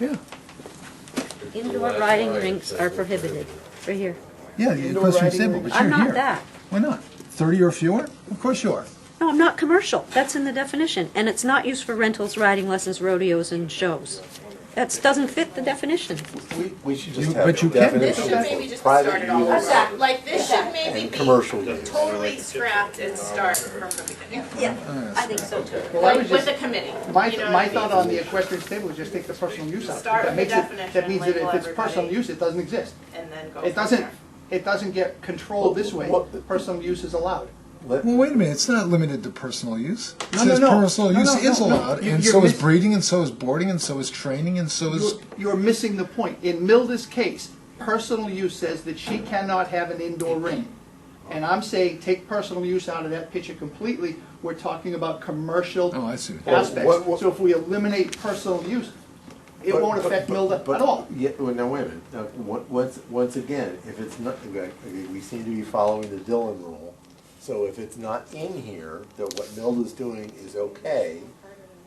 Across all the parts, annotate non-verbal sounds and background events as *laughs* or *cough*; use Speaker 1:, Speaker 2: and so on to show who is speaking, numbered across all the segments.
Speaker 1: Yeah,
Speaker 2: Indoor riding rinks are prohibited, right here.
Speaker 1: yeah,
Speaker 3: Indoor
Speaker 1: because you're
Speaker 3: riding
Speaker 1: disabled,
Speaker 3: rink.
Speaker 1: but
Speaker 2: I'm
Speaker 1: you're
Speaker 2: not
Speaker 1: here.
Speaker 2: that.
Speaker 1: Why not? Thirty or fewer? Of course you are.
Speaker 2: No, I'm not commercial, that's in the definition, and it's not used for rentals, riding lessons, rodeos, and shows. That doesn't fit the definition.
Speaker 3: We, we should
Speaker 1: You-
Speaker 3: just have
Speaker 1: but you
Speaker 3: a
Speaker 1: can.
Speaker 4: This
Speaker 3: definition
Speaker 4: should maybe
Speaker 3: for
Speaker 4: just start
Speaker 3: private
Speaker 4: it all
Speaker 3: use
Speaker 4: over. Like, this should maybe
Speaker 3: and
Speaker 4: be
Speaker 3: commercial use.
Speaker 4: totally scrapped and start from the beginning.
Speaker 2: Yeah, I think so too.
Speaker 5: Well, I was
Speaker 4: Like, with
Speaker 5: just,
Speaker 4: the committee, you know
Speaker 5: my,
Speaker 4: what I
Speaker 5: my
Speaker 4: mean?
Speaker 5: thought on the equestrian stable is just take the personal use out.
Speaker 4: Start
Speaker 5: That
Speaker 4: with
Speaker 5: makes
Speaker 4: the
Speaker 5: it- That
Speaker 4: definition,
Speaker 5: means that if
Speaker 4: label
Speaker 5: it's personal
Speaker 4: everybody.
Speaker 5: use, it doesn't exist.
Speaker 4: And then go.
Speaker 5: It
Speaker 4: from
Speaker 5: doesn't,
Speaker 4: there.
Speaker 5: it doesn't get controlled this way.
Speaker 3: Well, what-
Speaker 5: Personal use is allowed.
Speaker 3: Let-
Speaker 1: Well, wait a minute, it's not limited to personal use. It
Speaker 5: No, no,
Speaker 1: says
Speaker 5: no.
Speaker 1: personal
Speaker 5: No,
Speaker 1: use
Speaker 5: no,
Speaker 1: is
Speaker 5: no, no.
Speaker 1: allowed,
Speaker 5: You-
Speaker 1: and
Speaker 5: you're
Speaker 1: so is
Speaker 5: mis-
Speaker 1: breeding, and so is boarding, and so is training, and so is.
Speaker 5: You're- You're missing the point. In Milda's case, personal use says that she cannot have an indoor ring. And I'm saying, take personal use out of that picture completely. We're talking about commercial
Speaker 1: Oh, I see.
Speaker 3: Well, what-
Speaker 5: aspects.
Speaker 3: what-
Speaker 5: So if we eliminate personal use, it
Speaker 3: But-
Speaker 5: won't
Speaker 3: but-
Speaker 5: affect
Speaker 3: but-
Speaker 5: Milda
Speaker 3: but-
Speaker 5: at all.
Speaker 3: Yeah, well, now, wait a minute, now, on- once, once again, if it's not, okay, okay, we seem to be following the Dillon rule, so if it's not in here, that what Milda's doing is okay,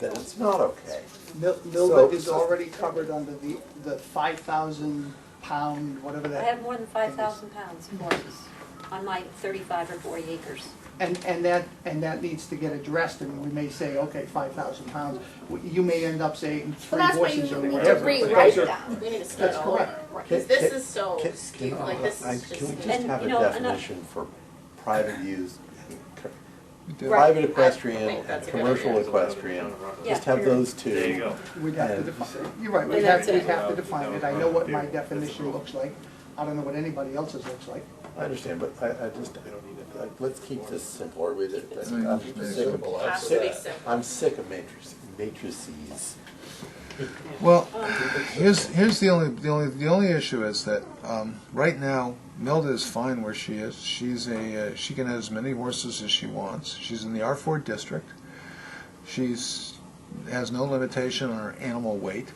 Speaker 3: then it's not okay.
Speaker 5: Mil-
Speaker 3: So-
Speaker 5: Milda is
Speaker 3: so-
Speaker 5: already covered under the, the five thousand pound, whatever
Speaker 2: I
Speaker 5: that,
Speaker 2: have more than five thousand pounds of horses on my thirty-five or forty acres.
Speaker 5: and, and that, and that needs to get addressed, and we may say, okay, five thousand pounds. W- You may end up saying
Speaker 4: Well,
Speaker 5: three
Speaker 4: that's why you
Speaker 5: horses or
Speaker 4: need
Speaker 5: whatever.
Speaker 4: to
Speaker 5: but
Speaker 4: rewrite
Speaker 5: those are-
Speaker 4: that, we need to start
Speaker 5: That's
Speaker 4: all over.
Speaker 5: correct.
Speaker 4: Because
Speaker 3: Can-
Speaker 4: this
Speaker 3: can-
Speaker 4: is so
Speaker 3: can-
Speaker 4: skewed,
Speaker 3: can-
Speaker 4: like, this
Speaker 3: I-
Speaker 4: is
Speaker 3: Can we
Speaker 4: just.
Speaker 3: just
Speaker 2: And,
Speaker 3: have a
Speaker 2: you
Speaker 4: uh,
Speaker 2: know, another-
Speaker 3: definition for
Speaker 4: *laughs*
Speaker 3: private use,
Speaker 1: We did.
Speaker 4: Right.
Speaker 3: private
Speaker 4: I
Speaker 3: equestrian
Speaker 4: think
Speaker 3: and
Speaker 4: that's a good
Speaker 3: commercial
Speaker 4: idea.
Speaker 3: equestrian?
Speaker 2: Yeah.
Speaker 3: Just have those two.
Speaker 6: There you go.
Speaker 5: We'd have to
Speaker 3: And-
Speaker 5: define, you're right, we'd
Speaker 4: And
Speaker 5: have,
Speaker 4: that's
Speaker 5: we'd
Speaker 4: it.
Speaker 5: have to define it. I know what my
Speaker 6: That's the
Speaker 5: definition
Speaker 6: rule.
Speaker 5: looks like. I don't know what anybody else's looks like.
Speaker 3: I understand, but I, I just, I don't need it, Like, let's keep this simpler with it, I'm
Speaker 1: simple.
Speaker 3: I'm sick of, I'm
Speaker 4: Has to be
Speaker 3: sick,
Speaker 4: simple.
Speaker 3: I'm sick of matrices, matrices.
Speaker 1: Well, here's here's the only the only the only issue is that um, right now Milda is fine where she is. She's a uh, she can have as many horses as she wants. She's in the R four district. She's has no limitation on her animal weight.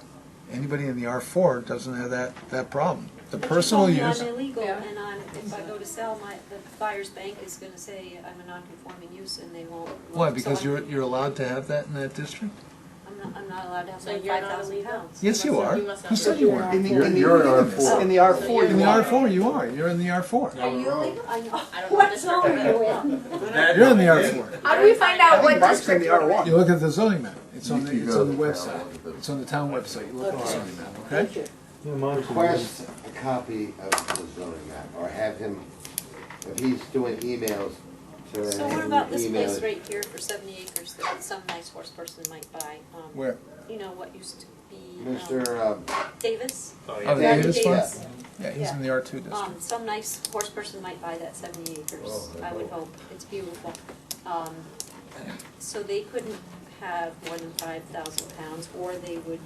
Speaker 1: Anybody in the R four doesn't have that that problem. The personal use.
Speaker 2: I'm illegal,
Speaker 4: Yeah.
Speaker 2: and I'm, if I go to sell, my, the buyer's bank is gonna say I'm a non-conforming use, and they won't.
Speaker 1: Why?
Speaker 2: so
Speaker 1: Because
Speaker 2: I'm-
Speaker 1: you're you're allowed to have that in that district.
Speaker 2: I'm not, I'm not allowed to have
Speaker 4: So
Speaker 2: my
Speaker 4: you're
Speaker 2: five
Speaker 4: not
Speaker 2: thousand
Speaker 4: illegal?
Speaker 2: pounds.
Speaker 1: Yes, you
Speaker 4: must not-
Speaker 1: are.
Speaker 4: you must not
Speaker 1: Who
Speaker 4: be
Speaker 1: said
Speaker 4: sure.
Speaker 1: you are?
Speaker 5: In the,
Speaker 3: You're-
Speaker 5: in the.
Speaker 3: you're an
Speaker 5: in the-
Speaker 3: R4.
Speaker 5: In the R four.
Speaker 1: In the R four, you are. You're in the R four.
Speaker 2: Are you illegal? I know.
Speaker 4: I don't know
Speaker 2: What
Speaker 4: this
Speaker 2: zone
Speaker 4: record.
Speaker 2: are you in?
Speaker 1: You're in the R four.
Speaker 4: How do we find out
Speaker 5: I think
Speaker 4: what
Speaker 5: Mark's in
Speaker 4: district
Speaker 5: the
Speaker 4: you're
Speaker 5: R
Speaker 4: in?
Speaker 5: one.
Speaker 1: You look at the zoning map. It's on the,
Speaker 3: You
Speaker 1: it's
Speaker 3: go
Speaker 1: on the
Speaker 3: to the town
Speaker 1: website.
Speaker 3: one.
Speaker 1: It's on the town website. You look at the zoning map, okay?
Speaker 7: Request a copy of the zoning map, or have him, if he's doing emails, to
Speaker 2: So
Speaker 7: have
Speaker 2: what
Speaker 7: him
Speaker 2: about this
Speaker 7: email
Speaker 2: place
Speaker 7: it.
Speaker 2: right here for seventy acres that some nice horse person might buy? um,
Speaker 1: Where?
Speaker 2: You know, what used to be. um,
Speaker 7: Mr. um,
Speaker 2: Davis?
Speaker 1: Oh, the
Speaker 2: Randy
Speaker 1: Davis one?
Speaker 2: Davis.
Speaker 1: Yeah, he's in the R two district.
Speaker 2: Um, some nice horse person might buy that seventy acres, I would hope, it's beautiful. Um, so they couldn't have more than five thousand pounds, or they would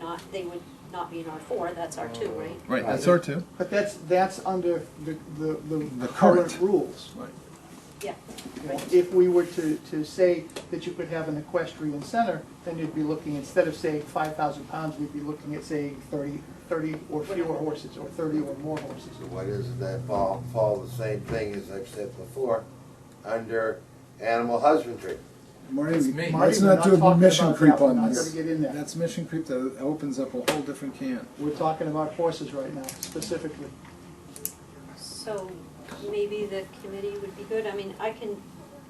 Speaker 2: not, they would not be in R four, that's R two, right?
Speaker 1: Right, that's R two.
Speaker 5: But that's, that's under the, the, the
Speaker 1: The
Speaker 5: current
Speaker 1: current.
Speaker 5: rules.
Speaker 2: Yeah,
Speaker 5: You know, If we were to, to say that you could have an equestrian center, then you'd be looking, instead of saying five thousand pounds, we'd be looking at saying thirty, thirty or fewer horses, or thirty or more horses.
Speaker 7: So what is it that fall, fall the same thing as I've said before, under animal husbandry?
Speaker 1: That's me.
Speaker 5: Marty,
Speaker 1: Let's
Speaker 5: we're
Speaker 1: not do a
Speaker 5: talking
Speaker 1: mission
Speaker 5: about
Speaker 1: creep
Speaker 5: that. We're
Speaker 1: on
Speaker 5: not
Speaker 1: this.
Speaker 5: gonna get in there.
Speaker 1: That's mission creep that opens up a whole different can.
Speaker 5: We're talking about horses right now, specifically.
Speaker 2: so maybe the committee would be good, I mean, I can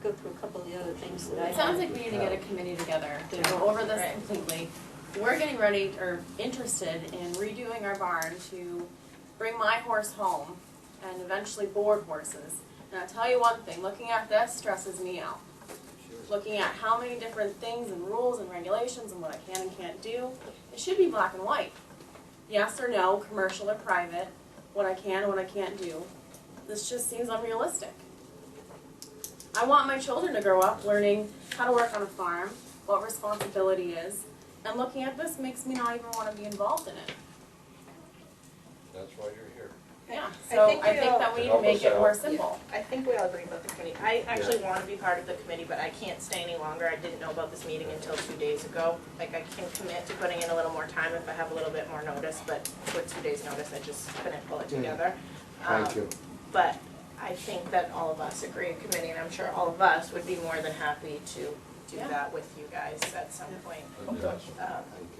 Speaker 2: go through a couple of the other things that I
Speaker 4: It sounds like we need to get a committee together to go over this completely. We're getting ready, or interested in redoing our barn to bring my horse home and eventually board horses. And I'll tell you one thing, looking at this stresses me out. Looking at how many different things and rules and regulations and what I can and can't do, it should be black and white. Yes or no, commercial or private, what I can, what I can't do. This just seems unrealistic. I want my children to grow up learning how to work on a farm, what responsibility is, and looking at this makes me not even want to be involved in it.
Speaker 7: That's why you're
Speaker 4: Yeah,
Speaker 8: I
Speaker 4: so
Speaker 8: think
Speaker 4: I
Speaker 8: we
Speaker 4: think
Speaker 8: all-
Speaker 4: that we need to
Speaker 7: Help
Speaker 4: make
Speaker 7: us
Speaker 4: it more
Speaker 7: out.
Speaker 4: simple.
Speaker 8: I think we all agree about the committee. I actually want to be part of the committee, but I can't stay any longer. I didn't know about this meeting until two days ago. Like, I can commit to putting in a little more time if I have a little bit more notice, but with two days' notice, I just couldn't pull it
Speaker 7: Yeah.
Speaker 8: together.
Speaker 7: here. Thank
Speaker 8: Um,
Speaker 7: you.
Speaker 8: But I think that all of us agree, committee, and I'm sure all of us would be more than happy to do
Speaker 4: Yeah.
Speaker 8: that with you guys at some point.
Speaker 7: Thank
Speaker 8: Um,
Speaker 7: you.